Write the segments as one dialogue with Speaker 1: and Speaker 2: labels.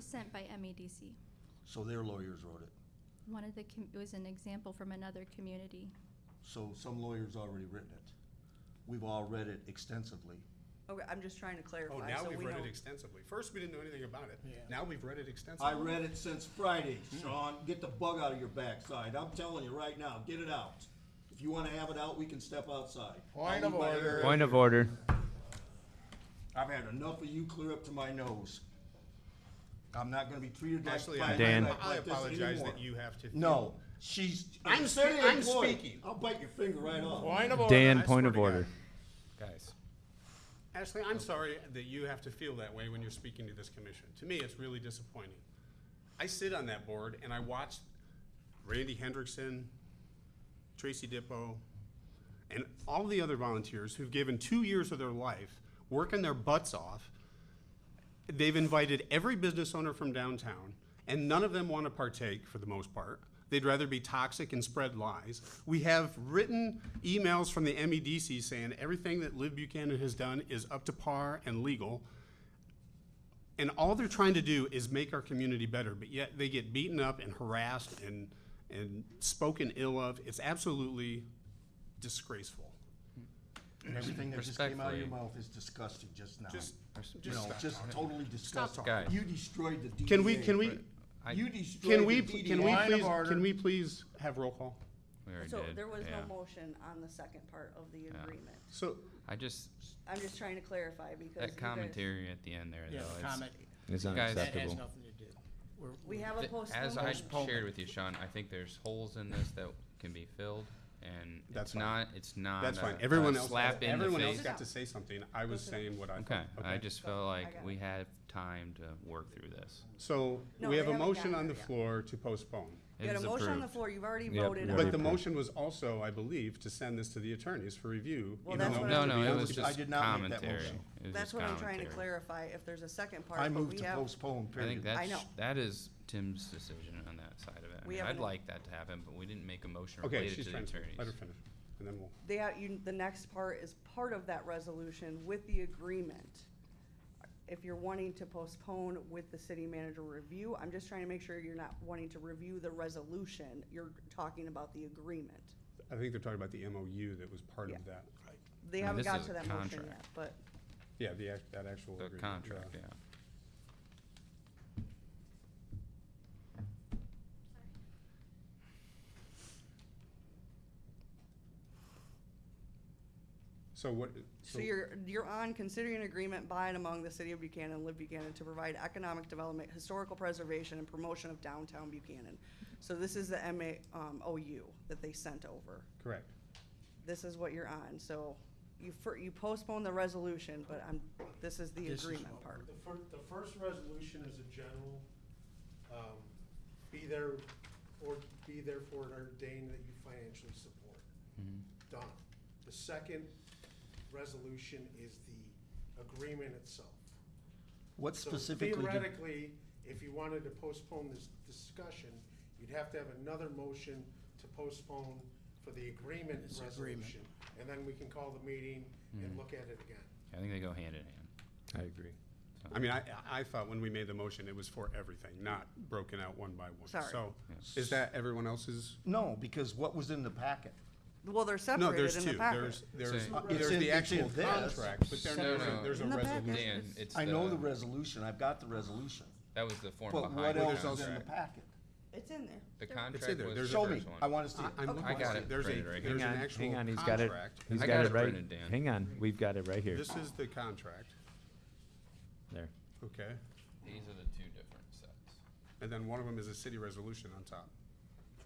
Speaker 1: sent by MEDC.
Speaker 2: So their lawyers wrote it.
Speaker 1: One of the, com- it was an example from another community.
Speaker 2: So some lawyer's already written it. We've all read it extensively.
Speaker 3: Okay, I'm just trying to
Speaker 4: Oh,
Speaker 3: clarify,
Speaker 4: now
Speaker 3: so
Speaker 4: we've
Speaker 3: we
Speaker 4: read
Speaker 3: know.
Speaker 4: it extensively. First, we didn't know anything about it. Now we've read it
Speaker 2: I
Speaker 4: extensively.
Speaker 2: read it since Friday, Sean. Get the bug out of your backside. I'm telling you right now, get it out. If you wanna have it out, we can step outside.
Speaker 5: Point of
Speaker 2: I'll leave my
Speaker 5: order.
Speaker 2: area.
Speaker 6: Point of order.
Speaker 2: I've had enough of you clear up to my nose. I'm not gonna be treated like.
Speaker 4: Actually,
Speaker 2: by-
Speaker 4: I,
Speaker 6: Dan.
Speaker 4: I,
Speaker 2: like
Speaker 4: I
Speaker 2: this
Speaker 4: apologize
Speaker 2: anymore.
Speaker 4: that you have to.
Speaker 2: No, she's.
Speaker 4: I'm
Speaker 2: a
Speaker 4: spe-
Speaker 2: city
Speaker 4: I'm
Speaker 2: employee.
Speaker 4: speaking.
Speaker 2: I'll bite your finger right off.
Speaker 5: Point of order.
Speaker 6: Dan,
Speaker 4: I swear
Speaker 6: point of
Speaker 4: to God.
Speaker 6: order.
Speaker 5: Guys.
Speaker 4: Ashley, I'm sorry that you have to feel that way when you're speaking to this commission. To me, it's really disappointing. I sit on that board and I watch Randy Hendrickson, Tracy Dippo, and all the other volunteers who've given two years of their life working their butts off. They've invited every business owner from downtown, and none of them want to partake for the most part. They'd rather be toxic and spread lies. We have written emails from the MEDC saying everything that Liv Buchanan has done is up to par and legal. And all they're trying to do is make our community better, but yet they get beaten up and harassed and, and spoken ill of. It's absolutely disgraceful.
Speaker 2: And everything that just came out of your
Speaker 7: Respectfully.
Speaker 2: mouth is disgusting just now.
Speaker 4: Just,
Speaker 2: You
Speaker 4: just
Speaker 2: know,
Speaker 4: stop.
Speaker 2: just totally disgusting.
Speaker 7: talking.
Speaker 2: You destroyed the DDA.
Speaker 4: Can we, can we,
Speaker 7: I-
Speaker 2: You destroyed
Speaker 4: can we,
Speaker 2: the
Speaker 4: can we
Speaker 2: DDA.
Speaker 5: Line of
Speaker 4: please,
Speaker 5: order.
Speaker 4: can we please have roll call?
Speaker 7: We already
Speaker 3: So
Speaker 7: did,
Speaker 3: there was
Speaker 7: yeah.
Speaker 3: no motion on the second part of the agreement.
Speaker 4: So,
Speaker 7: I just,
Speaker 3: I'm just trying to clarify because. you
Speaker 7: that
Speaker 3: guys-
Speaker 7: commentary at the end there, though.
Speaker 5: Yeah,
Speaker 7: it's-
Speaker 5: comment.
Speaker 6: It's
Speaker 7: Guys,
Speaker 5: That has
Speaker 6: unacceptable.
Speaker 5: nothing to do. We're-
Speaker 3: We
Speaker 5: we're-
Speaker 3: have a
Speaker 7: th-
Speaker 3: postponed.
Speaker 7: As I
Speaker 3: motion.
Speaker 7: shared with you, Sean, I think there's holes in this that can be filled, and
Speaker 4: That's
Speaker 7: it's
Speaker 4: fine.
Speaker 7: not, it's not
Speaker 4: That's
Speaker 7: a-
Speaker 4: fine.
Speaker 7: a
Speaker 4: Everyone else,
Speaker 7: slap in the
Speaker 4: everyone else
Speaker 7: face.
Speaker 4: got to say something. I was saying what I
Speaker 7: Okay,
Speaker 4: thought.
Speaker 7: I just
Speaker 3: Go,
Speaker 7: felt
Speaker 3: I
Speaker 7: like
Speaker 3: got
Speaker 7: we had time to work through this.
Speaker 4: So
Speaker 3: No,
Speaker 4: we have
Speaker 3: they
Speaker 4: a
Speaker 3: haven't
Speaker 4: motion
Speaker 3: gotten
Speaker 4: on the
Speaker 3: there yet.
Speaker 4: floor to postpone.
Speaker 3: You
Speaker 7: It
Speaker 3: had a
Speaker 7: is
Speaker 3: motion on the
Speaker 7: approved.
Speaker 3: floor, you've already
Speaker 6: Yep,
Speaker 3: voted
Speaker 6: we
Speaker 3: on
Speaker 4: But
Speaker 6: already
Speaker 4: the
Speaker 3: it.
Speaker 6: approved.
Speaker 4: motion was also, I believe, to send this to the attorneys for review.
Speaker 3: Well,
Speaker 4: even
Speaker 3: that's
Speaker 4: though
Speaker 3: what
Speaker 4: it
Speaker 7: No,
Speaker 3: I'm-
Speaker 4: should be
Speaker 7: no, it
Speaker 4: on-
Speaker 7: was
Speaker 2: I
Speaker 7: just
Speaker 2: did not make that
Speaker 7: commentary.
Speaker 2: motion.
Speaker 7: It was
Speaker 3: That's
Speaker 7: just
Speaker 3: what I'm trying to
Speaker 7: commentary.
Speaker 3: clarify, if there's a second part,
Speaker 2: I
Speaker 3: but
Speaker 2: moved
Speaker 3: we
Speaker 2: to
Speaker 3: have.
Speaker 2: postpone,
Speaker 7: I think
Speaker 2: period.
Speaker 7: that's,
Speaker 3: know.
Speaker 7: that is Tim's decision on that side of it. I
Speaker 3: We
Speaker 7: mean,
Speaker 3: haven't-
Speaker 7: I'd like that to happen, but we didn't make a motion
Speaker 4: Okay,
Speaker 7: related
Speaker 4: she's
Speaker 7: to the
Speaker 4: trying to,
Speaker 7: attorneys.
Speaker 4: let her finish, and then we'll.
Speaker 3: They, have- you, the next part is part of that resolution with the agreement. If you're wanting to postpone with the city manager review, I'm just trying to make sure you're not wanting to review the resolution, you're talking about the agreement.
Speaker 4: I think they're talking about the MOU that was part
Speaker 3: Yeah.
Speaker 4: of that.
Speaker 3: They
Speaker 7: No,
Speaker 3: haven't
Speaker 7: this
Speaker 3: got
Speaker 7: is
Speaker 3: to
Speaker 7: a
Speaker 3: that motion
Speaker 7: contract.
Speaker 3: yet, but
Speaker 4: Yeah, the, act- that actual.
Speaker 7: The
Speaker 4: agreement,
Speaker 7: contract, yeah.
Speaker 4: So what?
Speaker 3: So you're, you're on considering an agreement by and among the city of Buchanan and Live Buchanan to provide economic development, historical preservation, and promotion of downtown Buchanan. So this is the MA, um, OU that they sent over.
Speaker 4: Correct.
Speaker 3: This is what you're on, so you fir, you postpone the resolution, but I'm, this is the agreement part.
Speaker 8: The fir, the first resolution is a general, um, be there, or be therefore ordained that you financially support. Done. The second resolution is the agreement itself.
Speaker 2: What
Speaker 8: So
Speaker 2: specifically did,
Speaker 8: Theoretically, if you wanted to postpone this discussion, you'd have to have another motion to postpone for the agreement
Speaker 5: This agreement.
Speaker 8: resolution. And then we can call the meeting and look at it again.
Speaker 7: I think they go hand in hand.
Speaker 6: I agree.
Speaker 4: I mean, I, I thought when we made the motion, it was for everything, not broken out one by one.
Speaker 3: Sorry.
Speaker 4: So is that everyone else's?
Speaker 2: no, because what was in the packet?
Speaker 3: Well, they're
Speaker 4: No,
Speaker 3: separated
Speaker 4: there's
Speaker 3: in the
Speaker 4: two.
Speaker 3: packet.
Speaker 4: There's, there's,
Speaker 7: So-
Speaker 4: uh,
Speaker 2: It's
Speaker 4: there's
Speaker 2: in-
Speaker 4: the
Speaker 2: it's in
Speaker 4: actual
Speaker 2: this.
Speaker 4: contract, but then
Speaker 7: No,
Speaker 4: there's a,
Speaker 7: no.
Speaker 4: there's a
Speaker 3: In the back,
Speaker 4: resolution.
Speaker 7: Dan,
Speaker 3: it's-
Speaker 7: it's
Speaker 2: I know the
Speaker 7: the,
Speaker 2: resolution, I've got the resolution,
Speaker 7: that was the form
Speaker 2: but what
Speaker 7: behind
Speaker 2: else
Speaker 7: the
Speaker 2: is in the
Speaker 7: contract.
Speaker 2: packet?
Speaker 3: It's in there.
Speaker 7: The
Speaker 4: It's in
Speaker 7: contract
Speaker 4: there.
Speaker 7: was the
Speaker 4: There's a-
Speaker 2: Show me,
Speaker 7: first one.
Speaker 2: I wanna see
Speaker 4: I-
Speaker 2: it.
Speaker 4: I'm
Speaker 3: Okay.
Speaker 4: looking
Speaker 3: I
Speaker 7: got
Speaker 4: for
Speaker 7: it
Speaker 4: There's a,
Speaker 7: printed right here.
Speaker 4: there's an
Speaker 6: Hang on,
Speaker 4: actual
Speaker 6: hang on, he's got it,
Speaker 4: contract.
Speaker 6: he's
Speaker 7: I
Speaker 6: got
Speaker 7: got
Speaker 6: it
Speaker 7: it
Speaker 6: right,
Speaker 7: printed, Dan.
Speaker 6: hang on, we've got it right here,
Speaker 4: This is the contract,
Speaker 6: there.
Speaker 4: okay?
Speaker 7: These are the two different sets.
Speaker 4: And then one of them is a city resolution on top.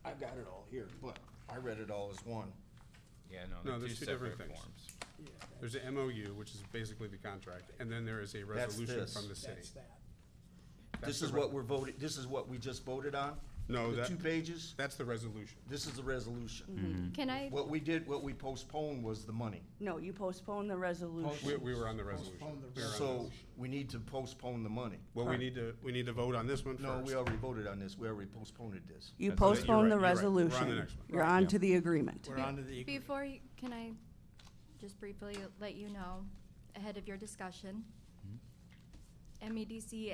Speaker 2: I've got it all here, but I read it all as one.
Speaker 7: Yeah,
Speaker 4: No,
Speaker 7: no, they're two
Speaker 4: there's two different
Speaker 7: separate
Speaker 4: things.
Speaker 7: forms.
Speaker 4: There's a MOU, which is basically the contract, and then there is a resolution
Speaker 2: this.
Speaker 4: from the city.
Speaker 5: That's that.
Speaker 4: That's
Speaker 2: This
Speaker 4: the
Speaker 2: is
Speaker 4: re-
Speaker 2: what we're voting, this is what we just voted on?
Speaker 4: No,
Speaker 2: The
Speaker 4: that-
Speaker 2: two pages,
Speaker 4: That's the resolution.
Speaker 2: this is the resolution.
Speaker 1: Can I,
Speaker 2: What we did, what we postponed was the money.
Speaker 3: No, you postpone the
Speaker 4: We,
Speaker 3: resolution.
Speaker 4: we were on the resolution.
Speaker 5: Postpone the
Speaker 4: We were on
Speaker 2: So
Speaker 4: this.
Speaker 2: we need to postpone the money.
Speaker 4: Well, we need to, we need to vote on this one first.
Speaker 2: No, we already voted on this, we already postponed this.
Speaker 3: You
Speaker 4: That's right, you're
Speaker 3: postpone
Speaker 4: right,
Speaker 3: the
Speaker 4: you're right. We're on the
Speaker 3: resolution.
Speaker 4: next one.
Speaker 3: You're on to the agreement.
Speaker 5: We're on to the. agreement.
Speaker 1: before, you- can I just briefly let you know, ahead of your discussion, MEDC